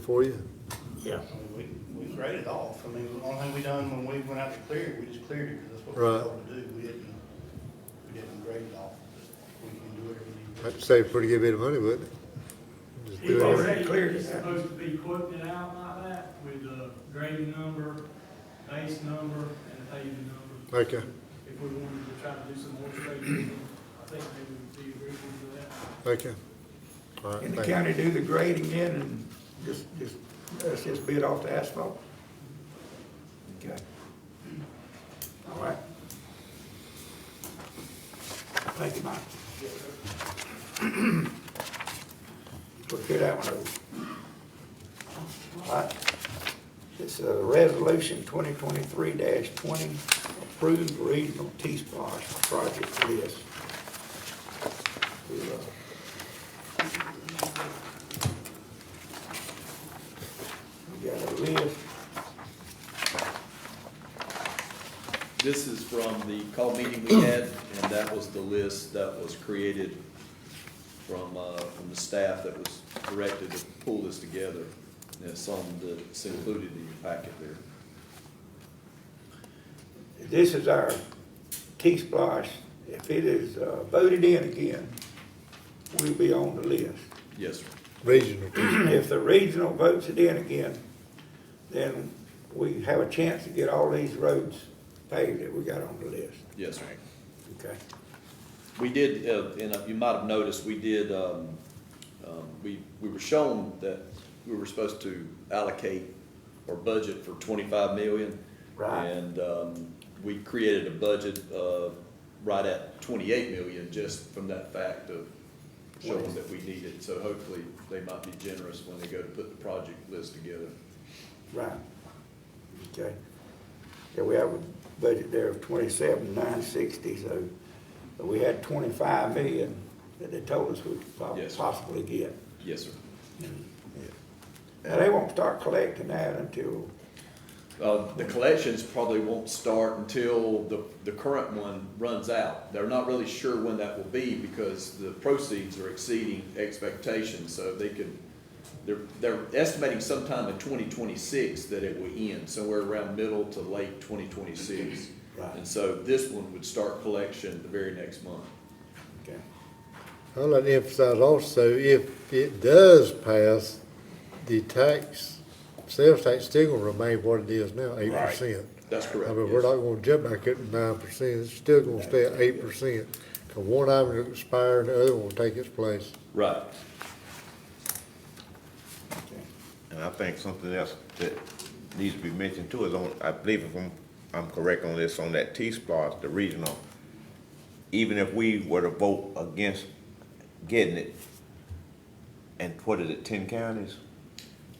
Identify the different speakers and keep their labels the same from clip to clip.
Speaker 1: for you?
Speaker 2: Yeah.
Speaker 3: I mean, We, we graded it off. I mean, the only thing we done when we went out to clear it, we just cleared it, because that's what we
Speaker 1: Right.
Speaker 3: were told to do. We didn't, we didn't grade it off. We can do whatever we need.
Speaker 1: That'd save a pretty good bit of money, wouldn't it? Just
Speaker 4: It's
Speaker 1: do it.
Speaker 2: already cleared it.
Speaker 4: It's supposed to be quoted out like that with the grading number, base number, and paving number.
Speaker 1: Okay,
Speaker 4: If we wanted to try to do some more grading, I think they would be agreeable to that.
Speaker 1: okay. All right,
Speaker 2: And the
Speaker 1: thank you.
Speaker 2: county do the grading in and just, just, let's just bid off the asphalt? Okay. All right. Thank you, Mike. We'll get that one over. All right. It's a resolution twenty twenty-three twenty, approved regional T-Splosh project list. We'll, uh, We got a list.
Speaker 5: This is from the call meeting we had, and that was the list that was created from, uh, from the staff that was directed to pull this together. And it's some that's included in your packet there.
Speaker 2: This is our T-Splosh. If it is uh, voted in again, we'll be on the list.
Speaker 5: Yes, sir.
Speaker 1: Regional,
Speaker 2: If the regional votes it in again, then we have a chance to get all these roads paved that we got on the list.
Speaker 5: Yes, sir.
Speaker 2: Okay.
Speaker 5: We did, uh, and you might have noticed, we did, um, um, we, we were shown that we were supposed to allocate or budget for twenty-five million.
Speaker 2: Right.
Speaker 5: And, um, we created a budget of right at twenty-eight million, just from that fact of showing that we need it. So hopefully, they might be generous when they go to put the project list together.
Speaker 2: Right. Okay. Yeah, we have a budget there of twenty-seven, nine sixty, so we had twenty-five million that they told us we could po-
Speaker 5: Yes, sir.
Speaker 2: possibly get.
Speaker 5: Yes, sir.
Speaker 2: Now, they won't start collecting that until,
Speaker 5: Uh, the collections probably won't start until the, the current one runs out. They're not really sure when that will be because the proceeds are exceeding expectations, so they could, they're, they're estimating sometime in twenty twenty-six that it will end, somewhere around middle to late twenty twenty-six.
Speaker 2: Right.
Speaker 5: And so this one would start collection the very next month.
Speaker 2: okay,
Speaker 1: I'd like to emphasize also, if it does pass, the tax, sales tax still gonna remain what it is now, eight percent.
Speaker 5: That's
Speaker 1: I
Speaker 5: correct.
Speaker 1: mean, we're
Speaker 5: yes.
Speaker 1: not gonna jump back up to nine percent, it's still gonna stay at eight percent. Cause one item will expire and the other one will take its place.
Speaker 5: Right.
Speaker 2: okay.
Speaker 6: And I think something else that needs to be mentioned too is on, I believe if I'm, I'm correct on this, on that T-Splosh, the regional, even if we were to vote against getting it, and what is it, ten counties?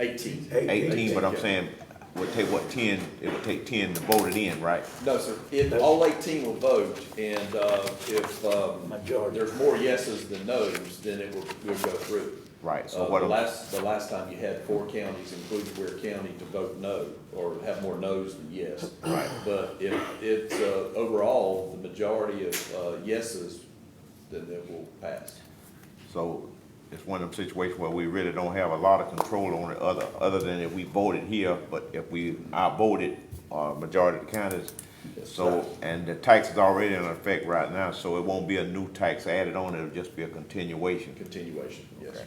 Speaker 5: Eighteen.
Speaker 6: Eighteen, but I'm saying, would take what, ten, it would take ten to vote it in, right?
Speaker 5: No, sir. If all eighteen will vote, and, uh, if, um,
Speaker 2: Majority.
Speaker 5: There's more yeses than nos, then it will, will go through.
Speaker 6: Right, so
Speaker 5: Uh,
Speaker 6: what
Speaker 5: The
Speaker 6: I'm-
Speaker 5: last, the last time you had four counties, including Ware County, to vote no, or have more nos than yes. Right. But if it's, uh, overall, the majority of, uh, yeses, then it will pass.
Speaker 6: So it's one of them situations where we really don't have a lot of control on it other, other than if we voted here, but if we, I voted, uh, majority of the counties. So, and the tax is already in effect right now, so it won't be a new tax added on, it'll just be a continuation.
Speaker 5: Continuation, yes.
Speaker 6: Okay.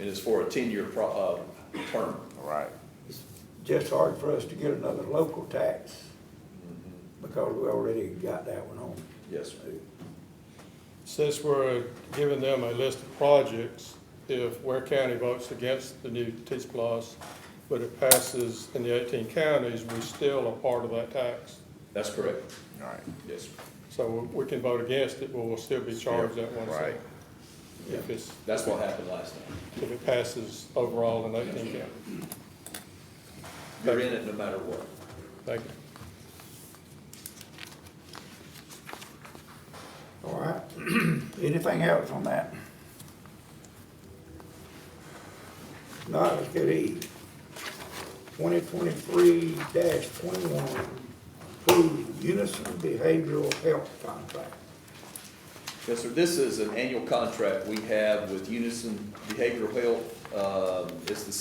Speaker 5: And it's for a ten-year pro, uh, term.
Speaker 6: All right,
Speaker 2: It's just hard for us to get another local tax because we already got that one on.
Speaker 5: Yes, sir.
Speaker 7: Since we're giving them a list of projects, if Ware County votes against the new T-Splosh, but it passes in the eighteen counties, we still are part of that tax.
Speaker 5: That's correct.
Speaker 6: all right,
Speaker 5: Yes, sir.
Speaker 7: So we can vote against it, but we'll still be charged that one
Speaker 6: right.
Speaker 7: cent. If it's,
Speaker 5: That's what happened last time.
Speaker 7: if it passes overall in eighteen counties.
Speaker 5: You're in it no matter what.
Speaker 7: Thank you.
Speaker 2: All right. Anything else on that? No, let's get E. Twenty twenty-three twenty-one, approved Unison Behavioral Health Contract.
Speaker 5: Yes, sir, this is an annual contract we have with Unison Behavioral Health. Um, It's the